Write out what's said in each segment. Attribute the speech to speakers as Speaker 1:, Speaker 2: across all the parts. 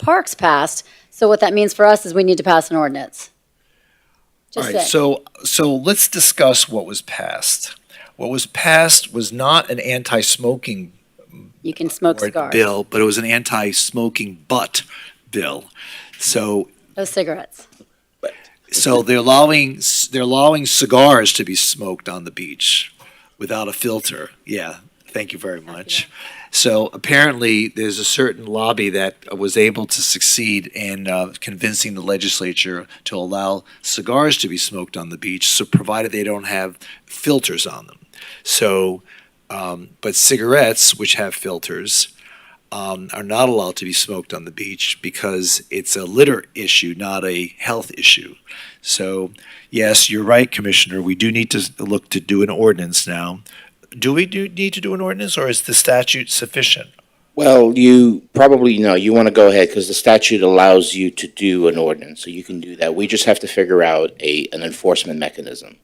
Speaker 1: Parks passed. So what that means for us is we need to pass an ordinance.
Speaker 2: All
Speaker 1: Just
Speaker 2: right,
Speaker 1: saying.
Speaker 2: so, so let's discuss what was passed. What was passed was not an anti-smoking
Speaker 1: You can smoke
Speaker 2: board
Speaker 1: cigars,
Speaker 2: bill, but it was an anti-smoking butt bill. So,
Speaker 1: no cigarettes.
Speaker 2: so they're allowing, they're allowing cigars to be smoked on the beach without a filter. Yeah, thank you very much. So apparently, there's a certain lobby that was able to succeed in uh, convincing the legislature to allow cigars to be smoked on the beach, so provided they don't have filters on them. So, um, but cigarettes, which have filters, um, are not allowed to be smoked on the beach because it's a litter issue, not a health issue. So, yes, you're right, Commissioner. We do need to look to do an ordinance now. Do we do need to do an ordinance, or is the statute sufficient?
Speaker 3: Well, you probably know, you want to go ahead because the statute allows you to do an ordinance, so you can do that. We just have to figure out a, an enforcement mechanism.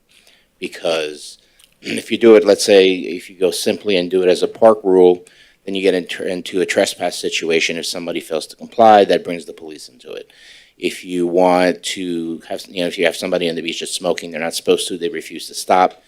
Speaker 3: Because if you do it, let's say, if you go simply and do it as a park rule, then you get into, into a trespass situation. If somebody fails to comply, that brings the police into it. If you want to have, you know, if you have somebody on the beach that's smoking, they're not supposed to, they refuse to stop,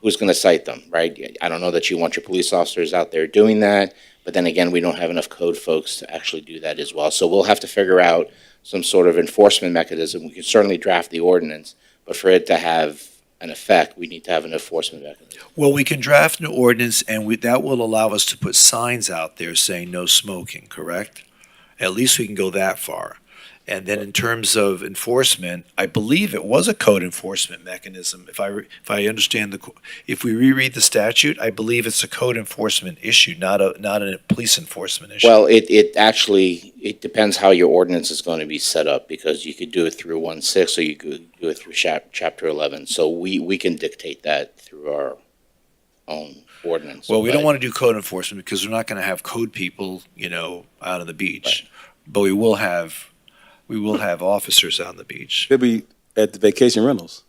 Speaker 3: who's going to cite them, right? I don't know that you want your police officers out there doing that. But then again, we don't have enough code folks to actually do that as well. So we'll have to figure out some sort of enforcement mechanism. We can certainly draft the ordinance, but for it to have an effect, we need to have an enforcement mechanism.
Speaker 2: Well, we can draft an ordinance, and we, that will allow us to put signs out there saying no smoking, correct? At least we can go that far. And then in terms of enforcement, I believe it was a code enforcement mechanism. If I, re- if I understand the, co- if we reread the statute, I believe it's a code enforcement issue, not a, not a police enforcement issue.
Speaker 3: Well, it, it actually, it depends how your ordinance is going to be set up, because you could do it through one six, or you could do it through chap, chapter eleven. So we, we can dictate that through our own ordinance.
Speaker 2: Well, we don't
Speaker 3: But-
Speaker 2: want to do code enforcement because we're not going to have code people, you know, out on the beach. But we will have, we will have officers on the beach.
Speaker 4: They'll be at the vacation rentals.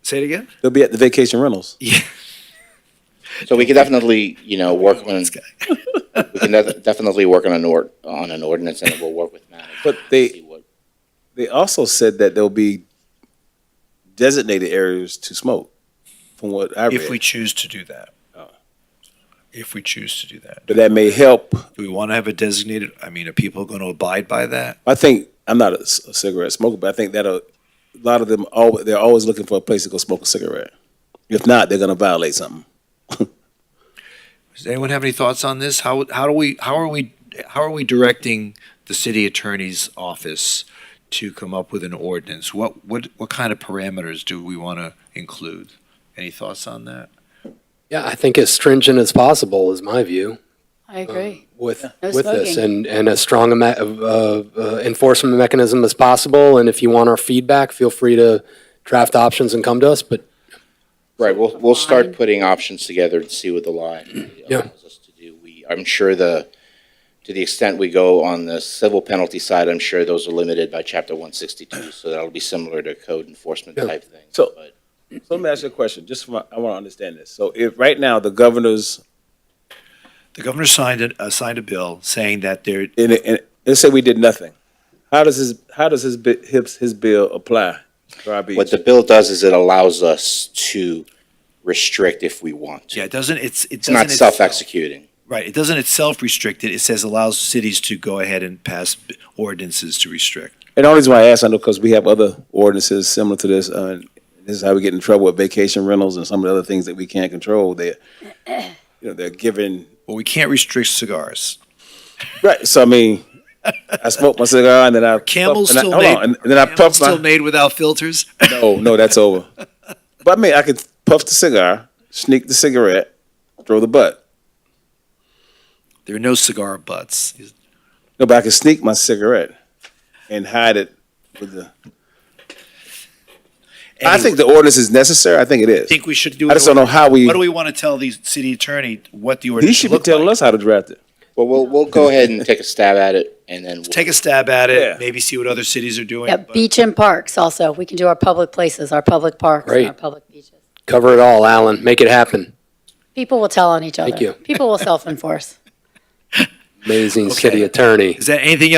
Speaker 2: Say it again?
Speaker 4: They'll be at the vacation rentals.
Speaker 3: So we could definitely, you know, work on,
Speaker 2: This guy.
Speaker 3: we can def- definitely work on an ord, on an ordinance, and we'll work with Matt.
Speaker 4: But
Speaker 3: and
Speaker 4: they-
Speaker 3: see what-
Speaker 4: They also said that there'll be designated areas to smoke, from what I read.
Speaker 2: If we choose to do that. If we choose to do that.
Speaker 4: but that may help.
Speaker 2: Do we want to have a designated, I mean, are people going to abide by that?
Speaker 4: I think I'm not a, c- a cigarette smoker, but I think that a, a lot of them al- they're always looking for a place to go smoke a cigarette. If not, they're gonna violate something.
Speaker 2: Does anyone have any thoughts on this? How, how do we, how are we, how are we directing the city attorney's office to come up with an ordinance? What, what, what kind of parameters do we want to include? Any thoughts on that?
Speaker 5: Yeah, I think as stringent as possible is my view um,
Speaker 1: I agree.
Speaker 5: with,
Speaker 1: No
Speaker 5: with this.
Speaker 1: smoking.
Speaker 5: And, and as strong a me- uh, uh, enforcement mechanism as possible. And if you want our feedback, feel free to draft options and come to us, but
Speaker 3: Right, we'll, we'll start putting options together and see what the line really
Speaker 5: Yeah.
Speaker 3: allows us to do. We, I'm sure the, to the extent we go on the civil penalty side, I'm sure those are limited by chapter one sixty-two, so that'll be similar to code enforcement
Speaker 5: Yeah.
Speaker 3: type thing.
Speaker 4: So-
Speaker 3: but-
Speaker 4: So let me ask you a question. Just for my, I want to understand this. So if right now the governor's
Speaker 2: The governor signed a, uh, signed a bill saying that there,
Speaker 4: in, in let's say we did nothing, how does his how does his bi- his, his bill apply? to our beach?
Speaker 3: What the bill does is it allows us to restrict if we want to.
Speaker 2: yeah, it doesn't, it's, it
Speaker 3: It's
Speaker 2: doesn't.
Speaker 3: not self-executing.
Speaker 2: Right, it doesn't itself restrict it. It says allows cities to go ahead and pass b- ordinances to restrict.
Speaker 4: And the only reason why I ask, I know because we have other ordinances similar to this. Uh, this is how we get in trouble with vacation rentals and some of the other things that we can't control. They, you know, they're given
Speaker 2: Well, we can't restrict cigars.
Speaker 4: right. So I mean, I smoked my cigar and then I
Speaker 2: Camels
Speaker 4: and I-
Speaker 2: still
Speaker 4: hold
Speaker 2: made.
Speaker 4: on, and, and then I
Speaker 2: Camels
Speaker 4: puffed
Speaker 2: still
Speaker 4: my.
Speaker 2: made without filters.
Speaker 4: No, no, that's over. But I mean, I could puff the cigar, sneak the cigarette, throw the butt.
Speaker 2: There are no cigar butts.
Speaker 4: No, but I could sneak my cigarette and hide it with the. I think the ordinance is necessary. I think it is.
Speaker 2: I think we should do.
Speaker 4: I just don't know how we.
Speaker 2: What do we want to tell the city attorney what the
Speaker 4: He
Speaker 2: ordinance
Speaker 4: should
Speaker 2: should
Speaker 4: be
Speaker 2: look
Speaker 4: telling
Speaker 2: like?
Speaker 4: us how to draft it.
Speaker 3: Well, we'll, we'll go ahead and take a stab at it, and then. we'll-
Speaker 2: Take a stab at
Speaker 4: Yeah.
Speaker 2: it. Maybe see what other cities are doing.
Speaker 1: Yeah,
Speaker 2: but-
Speaker 1: beach and parks also. We can do our public places, our public parks, and our
Speaker 5: Great.
Speaker 1: public beaches.
Speaker 5: cover it all, Alan. Make it happen.
Speaker 1: People will tell on each other.
Speaker 5: Thank you.
Speaker 1: People will self-enforce.
Speaker 5: Amazing
Speaker 2: Okay.
Speaker 5: city attorney.
Speaker 2: Is that anything